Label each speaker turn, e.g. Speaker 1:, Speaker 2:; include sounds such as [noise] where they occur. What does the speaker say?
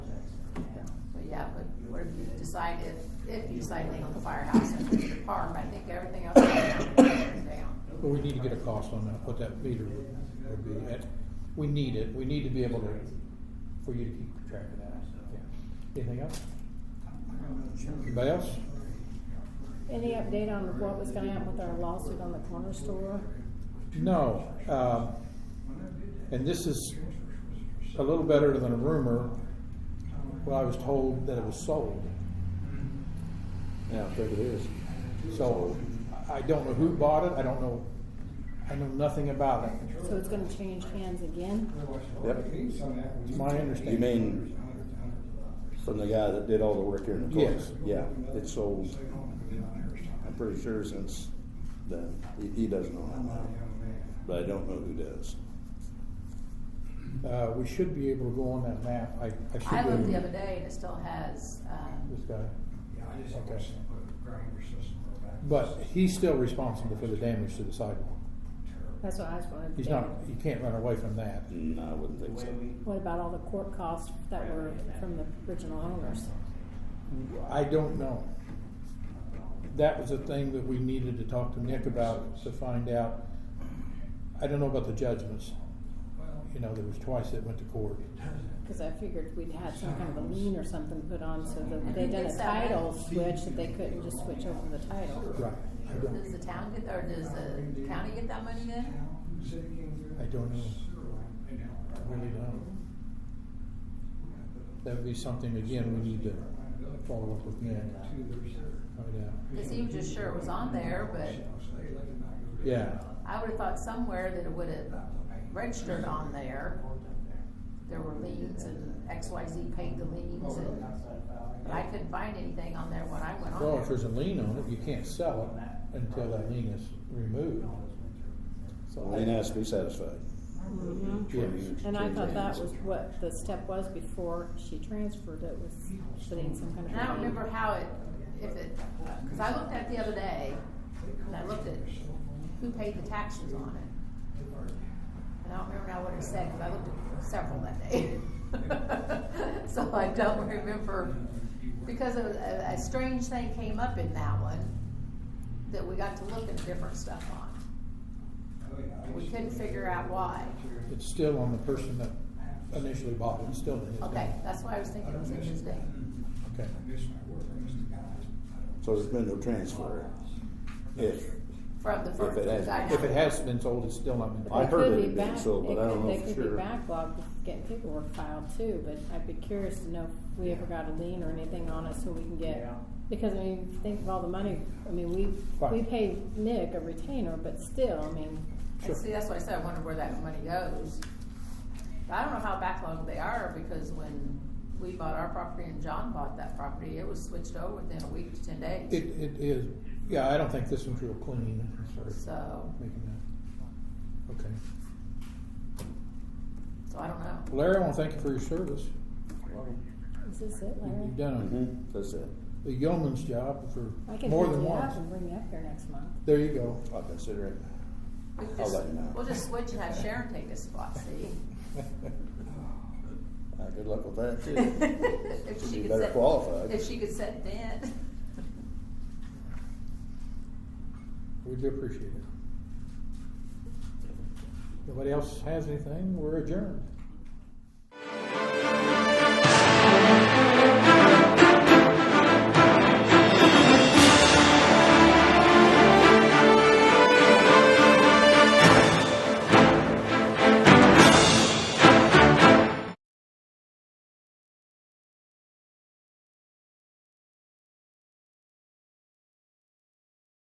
Speaker 1: decide if, if you decide to on the firehouse and the park, I think everything else is down.
Speaker 2: But we need to get a cost on that, what that meter would, would be. It- We need it, we need to be able to, for you to keep track of that. Yeah. Anything else? Anybody else?
Speaker 3: Any update on what was gonna happen with our lawsuit on the corner store?
Speaker 2: No, um, and this is a little better than a rumor. Well, I was told that it was sold.
Speaker 4: Yeah, I think it is.
Speaker 2: So I I don't know who bought it, I don't know, I know nothing about it.
Speaker 3: So it's gonna change hands again?
Speaker 4: Yep.
Speaker 2: It's my understanding.
Speaker 4: You mean from the guy that did all the work here in the court?
Speaker 2: Yes.
Speaker 4: Yeah, it sold, I'm pretty sure since then. He, he doesn't own it, but I don't know who does.
Speaker 2: Uh, we should be able to go on that map. I, I should.
Speaker 1: I
Speaker 2: be
Speaker 1: looked
Speaker 2: able-
Speaker 1: the other day and it still has, um,
Speaker 2: This guy.
Speaker 5: Okay.
Speaker 2: But he's still responsible for the damage to the sidewalk.
Speaker 3: That's what I was wondering.
Speaker 2: He's not, you can't run away from that.
Speaker 4: No, I wouldn't think so.
Speaker 3: What about all the court costs that were from the original owners?
Speaker 2: I don't know. That was a thing that we needed to talk to Nick about to find out. I don't know about the judgments. You know, there was twice it went to court.
Speaker 3: Cause I figured we'd had some kind of a lien or something put on so that they
Speaker 1: think
Speaker 3: done a
Speaker 1: it's that
Speaker 3: title
Speaker 1: way.
Speaker 3: switch, that they couldn't just switch over the title.
Speaker 2: Right. I don't,
Speaker 1: does the town get, or does the county get that money then?
Speaker 2: I don't know. I really don't. That would be something, again, we need to follow up with Nick. Find out.
Speaker 1: It seemed just sure it was on there, but
Speaker 2: Yeah,
Speaker 1: I would've thought somewhere that it would've registered on there. There were liens and X, Y, Z paid the liens and, but I couldn't find anything on there when I went on
Speaker 2: well, if
Speaker 1: there.
Speaker 2: there's a lien on it, you can't sell it until that lien is removed. So
Speaker 4: Lane has to be satisfied.
Speaker 2: Yes.
Speaker 3: Mm-hmm. And I thought that was what the step was before she transferred it, was putting some kind of.
Speaker 1: And I don't remember how it, if it, cause I looked at it the other day, and I looked at who paid the taxes on it. And I don't remember now what it said, cause I looked at several that day. [laughs] So I don't remember, because of, a, a strange thing came up in that one, that we got to look at different stuff on. We couldn't figure out why.
Speaker 2: It's still on the person that initially bought it, it's still in his name.
Speaker 1: Okay, that's why I was thinking it was in his name.
Speaker 2: Okay.
Speaker 4: So there's been no transfer. If,
Speaker 1: From the first.
Speaker 4: it has-
Speaker 1: because I
Speaker 2: If it
Speaker 1: haven't-
Speaker 2: has been sold, it's still not been
Speaker 4: I
Speaker 3: They
Speaker 2: bought.
Speaker 4: heard
Speaker 3: could
Speaker 4: it
Speaker 3: be
Speaker 4: had been
Speaker 3: back-
Speaker 4: sold, but
Speaker 3: they
Speaker 4: I
Speaker 3: could-
Speaker 4: don't know for
Speaker 3: They could
Speaker 4: sure.
Speaker 3: be backlogged with getting paperwork filed too, but I'd be curious to know if we ever got a lien or anything on it so we can get, because I mean, think of all the money, I mean, we, we
Speaker 2: Right.
Speaker 3: pay Nick a retainer, but still, I mean,
Speaker 1: And see, that's why I said, I wonder where that money goes. But I don't know how backlogged they are, because when we bought our property and John bought that property, it was switched over within a week to ten
Speaker 2: It,
Speaker 1: days.
Speaker 2: it is, yeah, I don't think this one's real clean, sorry.
Speaker 1: So,
Speaker 2: Making that, okay.
Speaker 1: so I don't know.
Speaker 2: Larry, I wanna thank you for your service.
Speaker 3: is this it,
Speaker 2: You've
Speaker 3: Larry?
Speaker 2: done
Speaker 4: Mhm, that's it.
Speaker 2: the yeoman's job
Speaker 3: I
Speaker 2: for
Speaker 3: can
Speaker 2: more
Speaker 3: pick
Speaker 2: than
Speaker 3: you up
Speaker 2: once.
Speaker 3: and bring you up here next month.
Speaker 2: There you go.
Speaker 4: I'll consider it.
Speaker 1: We could
Speaker 4: I'll
Speaker 1: just-
Speaker 4: let you know.
Speaker 1: We'll just switch and have Sharon take his spot, see?
Speaker 2: [laughs]
Speaker 4: Uh, good luck with
Speaker 3: [laughs]
Speaker 4: that too.
Speaker 1: [laughs] If
Speaker 4: She'd
Speaker 1: she
Speaker 4: be
Speaker 1: could
Speaker 4: better
Speaker 1: set-
Speaker 4: qualified.
Speaker 1: If she could set that.
Speaker 2: We do appreciate it. Nobody else has anything, we're adjourned.